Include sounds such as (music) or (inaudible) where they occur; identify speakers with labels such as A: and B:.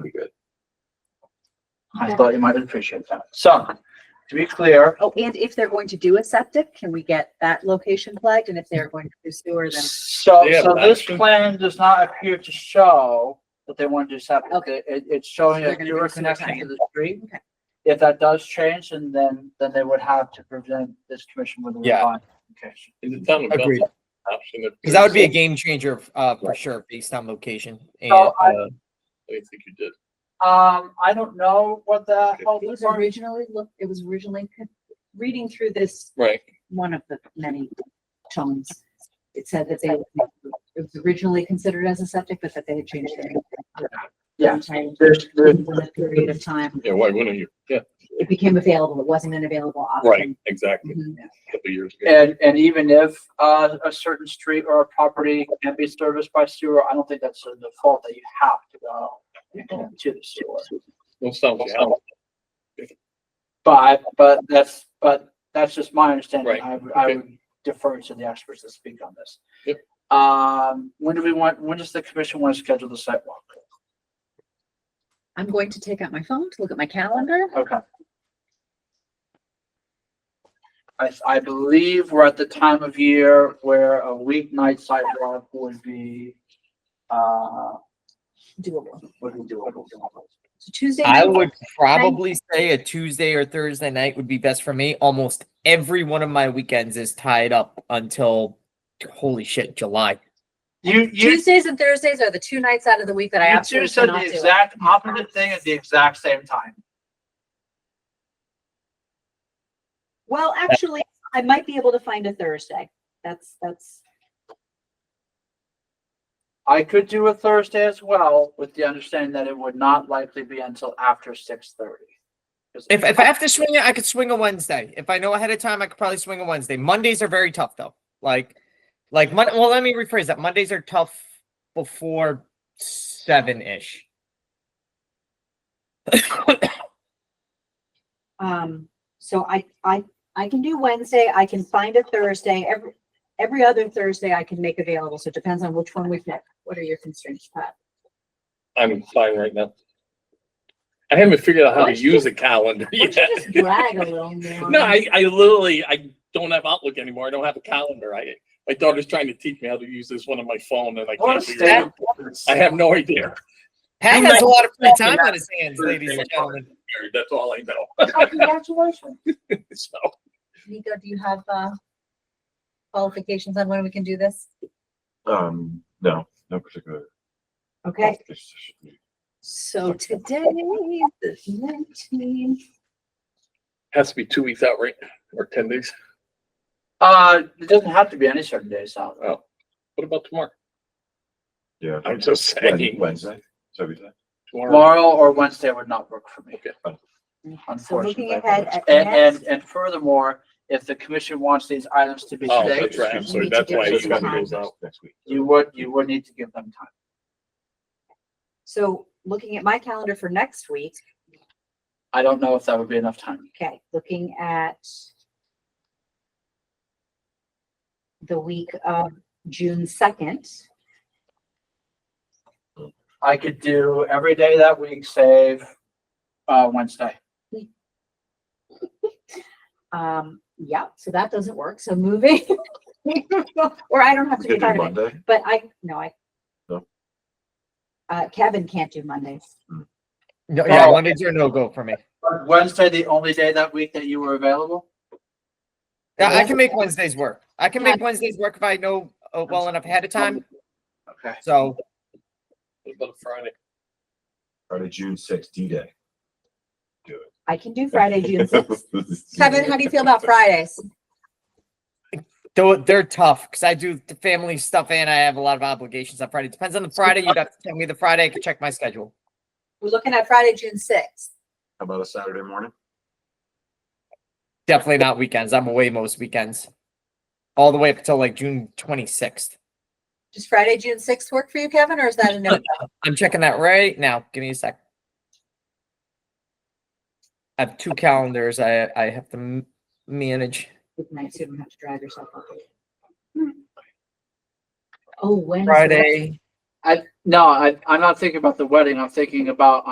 A: pretty good.
B: I thought you might appreciate that. So, to be clear,
C: Oh, and if they're going to do a septic, can we get that location flagged? And if they're going to do sewer, then
B: so,
A: They have
B: so
A: an
B: this
A: option.
B: plan does not appear to show that they want to do septic.
C: Okay.
B: It, it's showing
C: They're
B: a
C: gonna do
B: sewer
C: sewer
B: connection to
C: tie-in.
B: the street.
C: Okay.
B: If that does change, and then, then they would have to present this commission with a
D: Yeah.
B: revised application.
A: Is it done?
D: Agreed.
A: Option. of-
D: Because that would be a game changer, uh, for sure, based on location. And,
B: So I,
D: uh,
A: I think you did.
B: um, I don't know what the health
C: it was
B: department-
C: Oh, originally, look, it was originally, con- reading through this,
A: Right.
C: one of the many tones. It said that they, it was originally considered as a septic, but that they had changed their.
B: Yeah.
C: Sometime
B: there's, there's,
C: within a Period of time,
A: Yeah, why wouldn't you? Yeah,
C: it became available. It wasn't an available
A: right,
C: option.
A: exactly.
C: Mhm.
A: A Couple years ago.
B: and, and even if, uh, a certain street or a property can be serviced by sewer, I don't think that's the default that you have to go to the sewer.
A: Don't sound like Alan.
B: But, but that's, but that's just my understanding.
A: Right,
B: I, would- I
A: okay.
B: would defer to the experts that speak on this.
A: Yep.
B: Um, when do we want, when does the commission want to schedule the site walk?
C: I'm going to take out my phone to look at my calendar.
B: Okay. I, I believe we're at the time of year where a weeknight site walk would be, uh,
C: Doable.
B: would be doable.
C: So Tuesday.
D: I
C: night-
D: would probably say a Tuesday or Thursday night would be best for me. Almost every one of my weekends is tied up until, holy shit, July.
B: You, you,
C: Tuesdays and Thursdays are the two nights out of the week that I
B: you two
C: absolutely
B: said
C: cannot
B: the
C: do. it.
B: exact opposite thing at the exact same time.
C: Well, actually, I might be able to find a Thursday. That's, that's,
B: I could do a Thursday as well, with the understanding that it would not likely be until after six thirty.
D: If, if I have to swing it, I could swing a Wednesday. If I know ahead of time, I could probably swing a Wednesday. Mondays are very tough though. Like, like Mon- well, let me rephrase that. Mondays are tough before seven ish.
C: um, so I, I, I can do Wednesday. I can find a Thursday. Every, every other Thursday I can make available. So it depends on which one we pick. What are your constraints, Pat?
A: I'm fine right now. I haven't figured out how to
C: Why don't you
A: use a calendar
C: Why
A: yet.
C: don't you
A: (laughs)
C: Just drag a little more.
A: No, I, I literally, I don't have Outlook anymore. I don't have a calendar. I, my daughter's trying to teach me how to use this one on my phone and I
B: What a
A: can't figure it
B: state
A: out.
B: of affairs.
A: I have no idea.
D: Pat
B: I'm
D: has
B: not
D: a lot of free
B: talking
D: time
B: about
D: on his hands, ladies and gentlemen.
A: That's all I know.
B: Oh, Congratulations.
A: So,
C: Nico, do you have, uh, qualifications on when we can do this?
E: Um, no, no particular.
C: Okay.
E: qualifications.
C: So today, the nineteenth.
A: has to be two weeks out, right? Or ten days?
B: Uh, it doesn't have to be any certain days out.
A: Oh, what about tomorrow?
E: Yeah.
A: I'm just
E: Wednesday,
A: saying.
E: Wednesday, so we said.
A: Tomorrow,
B: Tomorrow or Wednesday would not work for me.
C: So looking
B: Unfortunately.
C: ahead at
B: And, and,
C: next,
B: and furthermore, if the commission wants these items to be
A: Oh,
B: today,
A: that's right. I'm sorry.
C: need to
A: That's
C: give
A: why
C: it
A: you
C: some
A: got
C: time.
A: those out.
E: Next week.
B: you would, you would need to give them time.
C: so looking at my calendar for next week,
B: I don't know if that would be enough time.
C: okay, looking at the week of June second,
B: I could do every day that week save, uh, Wednesday.
C: um, yeah, so that doesn't work, so moving. (laughs) Or I don't have
E: We
C: to
E: could
C: get
E: do
C: out of it,
E: Monday,
C: but I, no, I.
E: No.
C: Uh, Kevin can't do Mondays.
D: No, yeah,
B: Oh.
D: Mondays are no go for me.
B: Was Wednesday, the only day that week that you were available?
D: Yeah, I
C: Yeah.
D: can make Wednesdays work. I can
C: Yeah.
D: make Wednesdays work if I know uh, well enough ahead of time.
B: Okay.
D: So
A: what about Friday?
E: Friday, June sixth, D-Day. Do it.
C: I can do Friday, June
E: (laughs)
C: sixth. Kevin, how do you feel about
E: Friday?
C: Fridays?
D: though they're tough because I do the family stuff and I have a lot of obligations on Friday. Depends on the Friday. You'd have to tell me the Friday. I can check my schedule.
C: We're looking at Friday, June sixth.
E: How about a Saturday morning?
D: Definitely not weekends. I'm away most weekends. All the way up until like June 26th.
C: Does Friday, June sixth work for you, Kevin, or is that a no?
D: I'm checking that right now. Give me a sec. I have two calendars I, I have to m- manage.
C: Good night, so you don't have to drive yourself up. Oh, Wednesday.
D: Friday.
B: No, I, I'm not thinking about the wedding. I'm thinking about